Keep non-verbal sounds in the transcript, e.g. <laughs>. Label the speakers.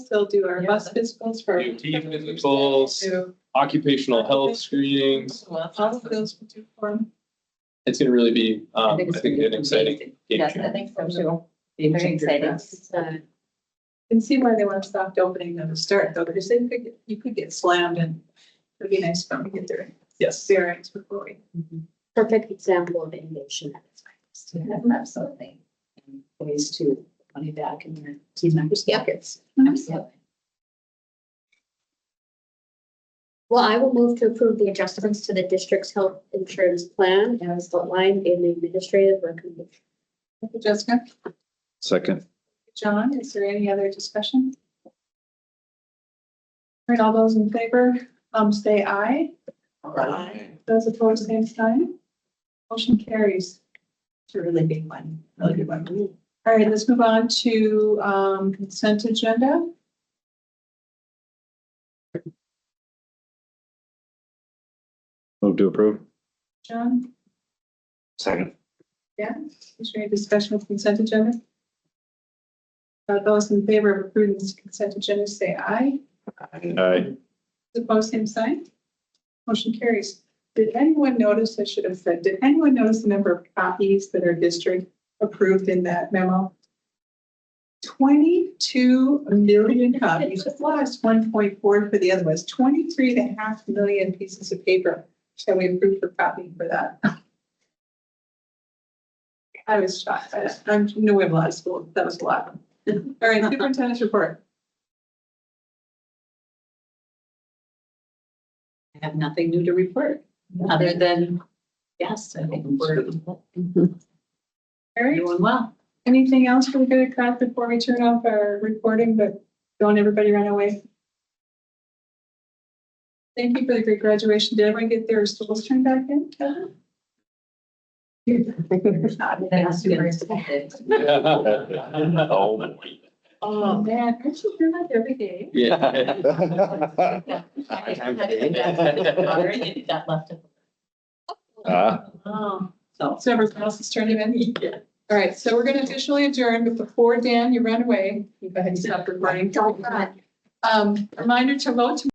Speaker 1: They'll do our
Speaker 2: Yeah.
Speaker 1: bus physicals for.
Speaker 3: Do team physicals,
Speaker 1: Do
Speaker 3: occupational health screenings.
Speaker 1: All of those will do for them.
Speaker 3: It's gonna really be, um, I
Speaker 4: it's
Speaker 3: think
Speaker 4: gonna
Speaker 3: an
Speaker 4: be
Speaker 3: exciting
Speaker 4: amazing.
Speaker 3: game
Speaker 4: Yes, I
Speaker 3: changer.
Speaker 4: think so too.
Speaker 2: Game
Speaker 4: Very
Speaker 2: changer.
Speaker 4: exciting.
Speaker 1: Can see why they want to stop opening them to start though, because they could, get- you could get slammed and it'd be nice fun to get their
Speaker 3: Yes.
Speaker 1: bearings before we.
Speaker 5: perfect example of innovation at its finest.
Speaker 4: Yeah, Absolutely.
Speaker 2: And Ways to money back in their team members' pockets.
Speaker 4: Absolutely.
Speaker 5: Well, I will move to approve the adjustments to the district's health insurance plan as outlined in the administrative recommendation.
Speaker 1: Thank you, Jessica,
Speaker 6: Second,
Speaker 1: John, is there any other discussion? All right, all those in favor, um, say aye. Those opposed, same sign. Motion carries. It's a really big one, really good one. All right, let's move on to um, consent agenda.
Speaker 6: move to approve.
Speaker 1: John,
Speaker 6: Second.
Speaker 1: is there any discussion of consent agenda? Uh, Those in favor of approving this consent agenda, say aye.
Speaker 3: <laughs>
Speaker 6: Aye.
Speaker 1: Those Opposed, same sign. Motion carries. Did anyone notice, I should have said, did anyone notice the number of copies that are district approved in that memo? Twenty-two million copies, plus one point four for the other ones, 23 and a half million pieces of paper that we approved for copying for that. I was shocked. I- I knew we have a lot of schools. That was a lot. All right, superintendent's report.
Speaker 2: I have nothing new to report, other than, yes, I think we're doing
Speaker 1: All right.
Speaker 4: <laughs>
Speaker 2: well.
Speaker 1: Anything else we're gonna cut before we turn off our recording, but don't everybody run away? Thank you for the great graduation. Did everyone get their stools turned back in?
Speaker 2: That's super excited.
Speaker 6: Oh, <laughs>
Speaker 1: Oh, man, aren't you doing that
Speaker 4: <laughs>
Speaker 1: every day?
Speaker 3: Yeah. <laughs>
Speaker 6: boy.
Speaker 2: Already Got left.
Speaker 6: Ah.
Speaker 1: Oh,
Speaker 2: So.
Speaker 1: so everyone else is turning in? All right, so we're gonna officially adjourn, but before Dan, you ran away, you go ahead and stop recording.
Speaker 5: Don't run.
Speaker 1: Um, reminder to vote tomorrow